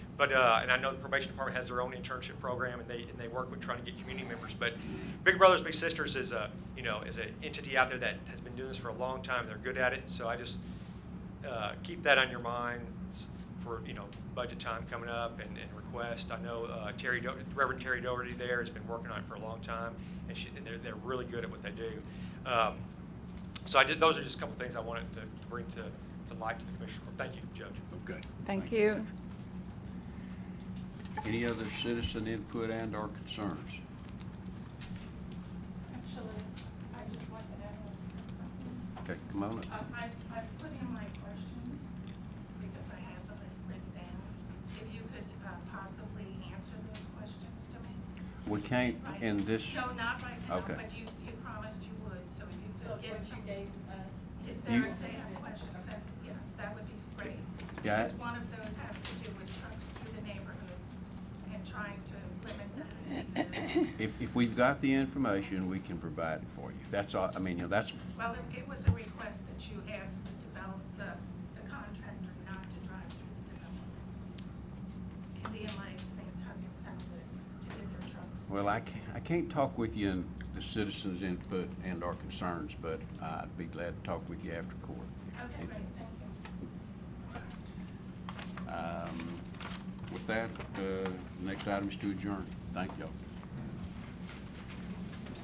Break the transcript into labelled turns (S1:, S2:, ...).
S1: But, uh, and I know the probation department has their own internship program, and they, and they work with trying to get community members. But Big Brothers Big Sisters is a, you know, is an entity out there that has been doing this for a long time. They're good at it, so I just, uh, keep that on your minds for, you know, budget time coming up and, and request. I know uh, Terry, Do- Reverend Terry Doherty there has been working on it for a long time, and she, and they're, they're really good at what they do. Um, So I did, those are just a couple things I wanted to to bring to, to light to the commission. Thank you, Judge.
S2: Okay.
S3: Thank you.
S2: Any other citizen input and/or concerns?
S4: Actually, I just want to add one something.
S2: Okay, come on
S4: Uh,
S2: up.
S4: I, I put in my questions because I have them written down. If you could uh, possibly answer those questions to me.
S2: We can't
S4: right-
S2: in this,
S4: No, not right now,
S2: Okay.
S4: but you, you promised you would, so you could
S5: So what
S4: give them.
S5: you gave us.
S4: If
S2: You-
S4: there, if they have questions, I- yeah, that would be great.
S2: Yeah, I-
S4: Because one of those has to do with trucks through the neighborhoods and trying to limit that. because-
S2: if, if we've got the information, we can provide it for you. That's all, I mean, you know, that's,
S4: Well, it- it was a request that you asked the develop, the, the contractor not to drive through the developments. India Lights, Nantucket Sound Licks, to get their trucks.
S2: well, I can't, I can't talk with you in the citizens input and/or concerns, but I'd be glad to talk with you after court.
S4: Okay,
S2: If-
S4: great, thank you.
S2: Um, With that, uh, next item is to adjourn. Thank y'all.